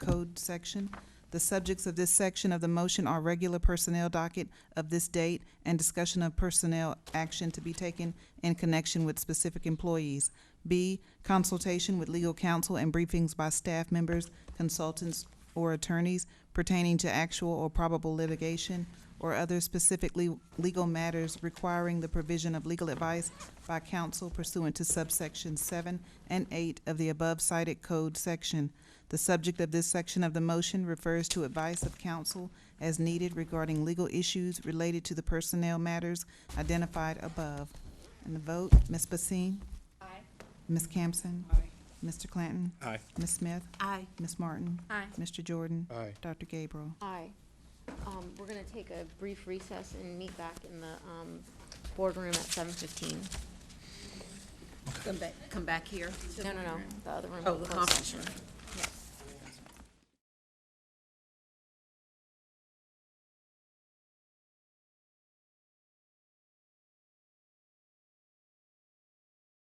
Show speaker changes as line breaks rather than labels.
Code section. The subjects of this section of the motion are regular personnel docket of this date and discussion of personnel action to be taken in connection with specific employees. B, consultation with legal counsel and briefings by staff members, consultants, or attorneys pertaining to actual or probable litigation or other specifically legal matters requiring the provision of legal advice by counsel pursuant to subsection seven and eight of the above cited code section. The subject of this section of the motion refers to advice of counsel as needed regarding legal issues related to the personnel matters identified above. And the vote, Ms. Basine? Aye. Ms. Campson? Aye. Mr. Clanton?
Aye.
Ms. Smith?
Aye.
Ms. Martin?
Aye.
Mr. Jordan?
Aye.
Dr. Gabriel?
Aye. Um, we're gonna take a brief recess and meet back in the, um, boardroom at seven fifteen.
Come back, come back here?
No, no, no, the other room.
Oh, the conference room.